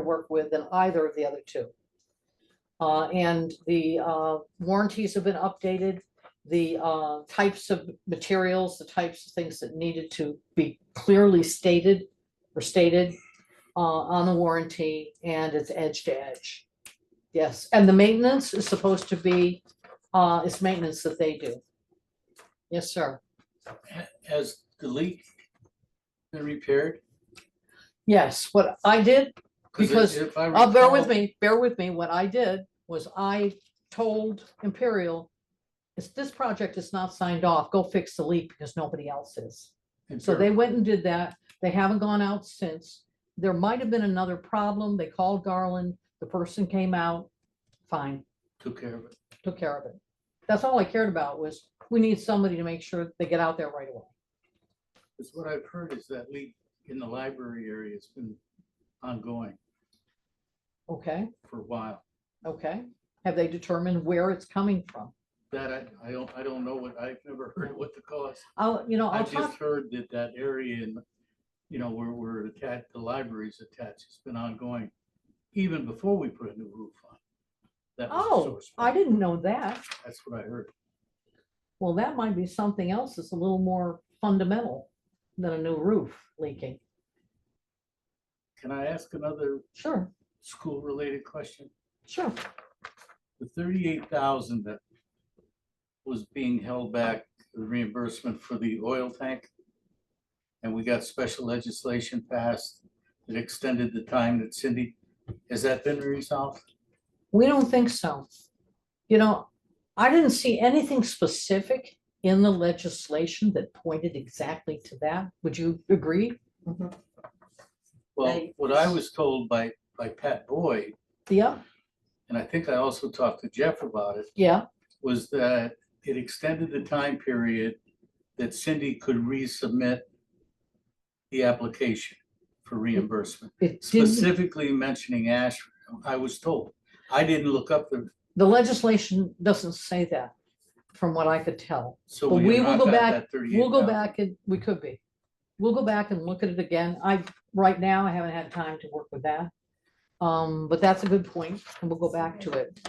work with than either of the other two. Uh, and the, uh, warranties have been updated, the, uh, types of materials, the types of things that needed to be clearly stated or stated, uh, on the warranty and it's edge to edge. Yes, and the maintenance is supposed to be, uh, it's maintenance that they do. Yes, sir. Has the leak been repaired? Yes, what I did 'Cause Because- if I Oh, bear recall- with me, bear with me. What I did was I told Imperial, it's, this project is not signed off. Go fix the leak because nobody else is. if So I- they went and did that. They haven't gone out since. There might have been another problem. They called Garland. The person came out. Fine, Took care of it. took care of it. That's all I cared about was we need somebody to make sure they get out there right away. Because what I've heard is that leak in the library area has been ongoing Okay, for a while. okay. Have they determined where it's coming from? That I, I don't, I don't know what, I've never heard what the cause. I'll, you know, I'll I've talk. just heard that that area in, you know, where we're attached, the library's attached, it's been ongoing even before we put a new roof on. That was the Oh, source. I didn't know that. That's what I heard. Well, that might be something else that's a little more fundamental than a new roof leaking. Can I ask another Sure, school-related question? sure. the thirty-eight thousand that was being held back, the reimbursement for the oil tank. And we got special legislation passed that extended the time that Cindy, has that been resolved? We don't think so. You know, I didn't see anything specific in the legislation that pointed exactly to that. Would you agree? Well, Right. what I was told by, by Pat Boyd, Yeah, and I think I also talked to Jeff about it, yeah, was that it extended the time period that Cindy could resubmit the application for reimbursement. it did. specifically mentioning ash, I was told. I didn't look up the, The legislation doesn't say that, from what I could tell. so But we we will have not go got back- that thirty-eight. We'll go thousand. back and, we could be. We'll go back and look at it again. I, right now, I haven't had time to work with that. Um, but that's a good point, and we'll go back to it.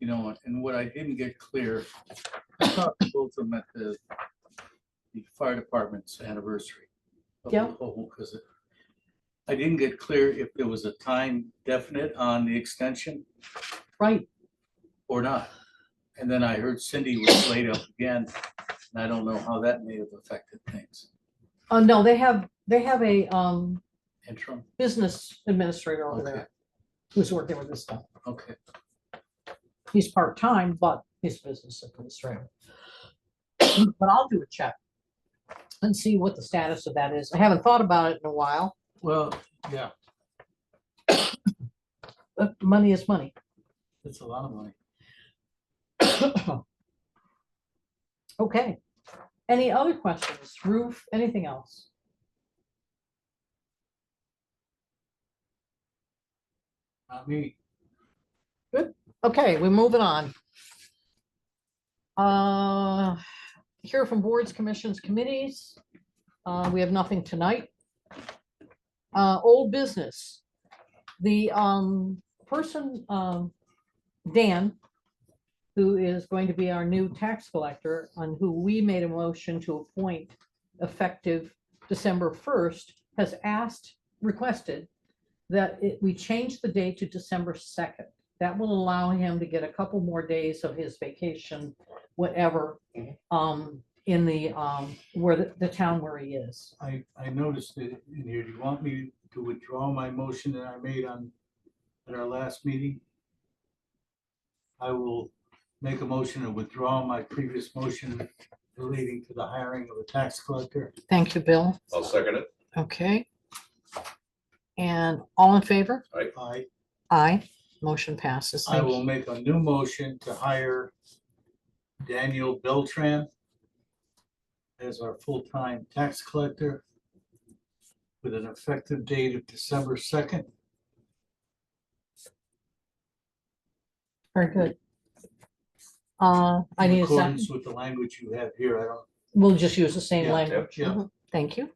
You know, and what I didn't get clear, I talked to both of them at the, the fire department's anniversary. of the Yeah. whole, 'cause it- I didn't get clear if there was a time definite on the extension Right, or not. And then I heard Cindy was laid up again, and I don't know how that may have affected things. uh, no, they have, they have a, um, Interim, business administrator over Okay. there who's working with this stuff. okay, He's part-time, but he's a business administrator. But I'll do a check and see what the status of that is. I haven't thought about it in a while, well, yeah, but money is money. it's a lot of money. Okay. Any other questions? Roof, anything else? Not me. Okay, we're moving on. Uh, Hear from boards, commissions, committees. Uh, We have nothing tonight. Uh, Old business. The um, person, um, Dan, who is going to be our new tax collector, on who we made a motion to appoint effective December 1st, has asked, requested that it- we change the date to December 2nd. That will allow him to get a couple more days of his vacation, whatever, Mhm. um, in the, um, where the, the town where he is. I, I noticed it in here. Do you want me to withdraw my motion that I made on, at our last meeting? I will make a motion to withdraw my previous motion relating to the hiring of a tax collector. Thank you, Bill. I'll second it. Okay. And all in favor? I, Aye. Motion passes. I Thank will you. make a new motion to hire Daniel Beltran as our full-time tax collector with an effective date of December second. Very good. Uh, I need In a second. accordance with the language you have here, I don't We'll just use the same Yeah, language. yeah. Thank you.